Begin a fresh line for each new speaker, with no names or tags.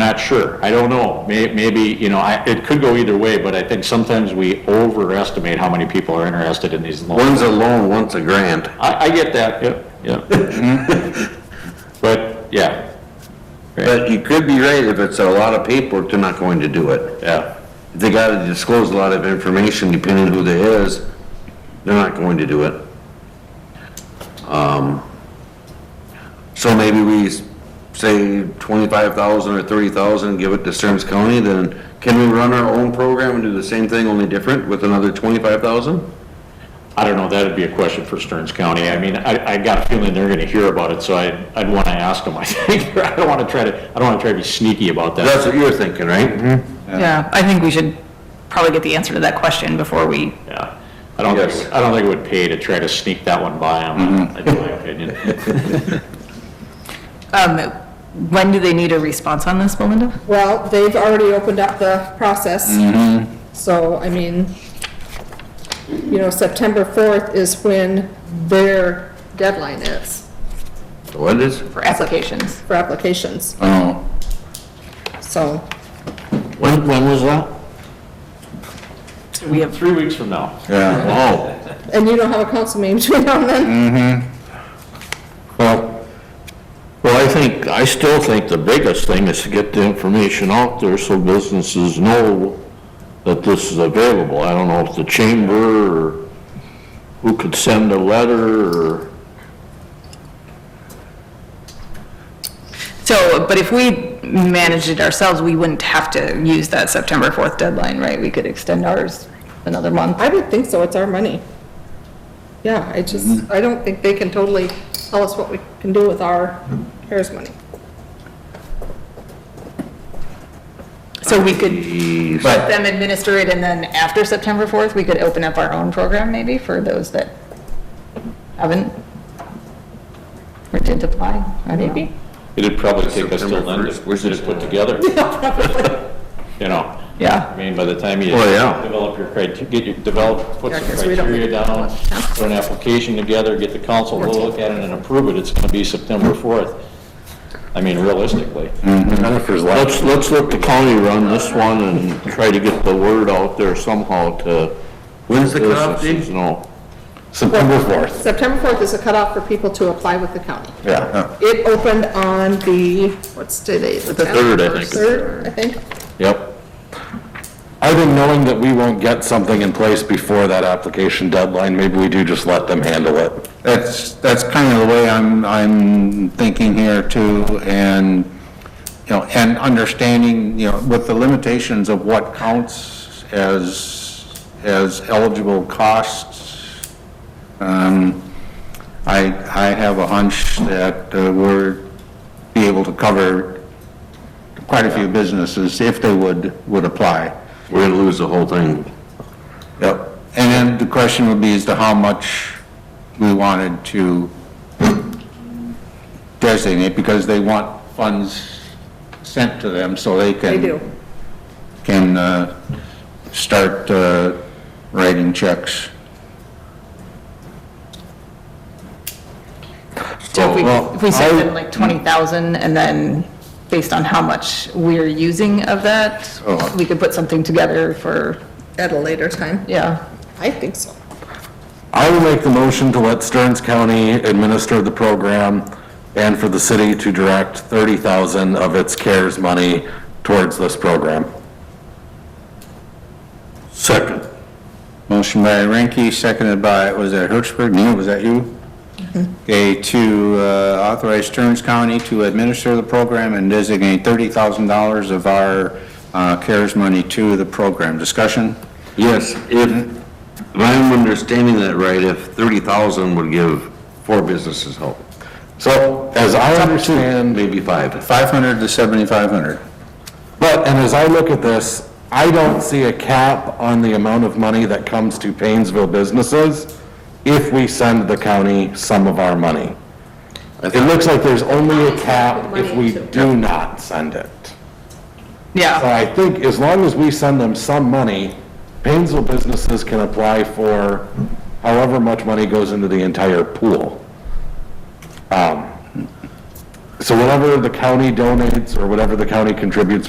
Not sure. I don't know. May, maybe, you know, I, it could go either way, but I think sometimes we overestimate how many people are interested in these loans.
One's a loan, one's a grant.
I, I get that, yep, yep. But, yeah,
But you could be right, if it's a lot of paperwork, they're not going to do it.
yeah,
If They gotta disclose a lot of information depending who they is, they're not going to do it. Um, So maybe we s- say twenty-five thousand or thirty thousand, give it to Stearns County, then can we run our own program and do the same thing, only different with another twenty-five thousand?
I don't know, that'd be a question for Stearns County. I mean, I, I got a feeling they're gonna hear about it, so I, I'd wanna ask them, I think. I don't wanna try to, I don't wanna try to be sneaky about that.
That's what you're thinking, right?
Yeah, I think we should probably get the answer to that question before we,
Yeah. I don't think, it would- I don't think it would pay to try to sneak that one by them, in my opinion.
um, when do they need a response on this, Melinda?
Well, they've already opened up the process. So, I mean, you know, September 4th is when their deadline is
What is,
For applications.
for applications,
Oh,
so.
When, when was that?
We have,
Three weeks from now.
yeah,
oh.
And you don't have a council meeting between now and then?
well, well, I think, I still think the biggest thing is to get the information out there so businesses know that this is available. I don't know if the chamber or who could send a letter or,
so, but if we managed it ourselves, we wouldn't have to use that September 4th deadline, right? We could extend ours another month.
I would think so, it's our money. Yeah, I just, I don't think they can totally tell us what we can do with our CARES money.
So we could
Jeez.
let them administer it, and then after September 4th, we could open up our own program maybe for those that haven't or didn't apply, I don't know.
It'd probably take us till
September
then to
1st. Where's
get it put together. You know, I
Yeah,
mean, by the time you
Oh, yeah.
develop your criteria, get your, develop, put
Yeah,
some
'cause we don't
criteria
get to
down,
develop, yeah.
put an application together, get the council to look at it and approve it, it's gonna be September 4th. I mean, realistically.
Mm-hmm.
let's, let's let the county run this one and try to get the word out there somehow to
When's the cutoff date?
businesses know.
September 4th.
September 4th is the cutoff for people to apply with the county.
Yeah.
It opened on the, what's today? The
third, I think.
Third, I think.
Yep.
I've been knowing that we won't get something in place before that application deadline, maybe we do just let them handle it.
That's, that's kind of the way I'm, I'm thinking here too, and, you know, and understanding, you know, with the limitations of what counts as, as eligible costs, um, I, I have a hunch that uh, we're be able to cover quite a few businesses if they would, would apply.
We're gonna lose the whole thing.
Yep. And then the question would be as to how much we wanted to designate, because they want funds sent to them so they
They
can.
do.
Can, uh, start, uh, writing checks.
so if we,
Well,
if we send
I-
them like 20,000, and then based on how much we're using of that,
Oh.
we could put something together for,
At a later time.
yeah.
I think so.
I will make the motion to let Stearns County administer the program and for the city to direct 30,000 of its CARES money towards this program.
Second.
Motion by Ranky, seconded by, was that Hertzberg? Neil, was that you? Okay, to uh, authorize Stearns County to administer the program and designate $30,000 of our uh, CARES money to the program. Discussion?
Yes, if, if I'm understanding that right, if 30,000 would give four businesses help.
So as I understand.
Maybe five.
500 to 7,500.
But, and as I look at this, I don't see a cap on the amount of money that comes to Painesville businesses if we send the county some of our money. It looks like there's only a cap if we do not send it. So
Yeah,
I think as long as we send them some money, Painesville businesses can apply for however much money goes into the entire pool. Um, So whatever the county donates or whatever the county contributes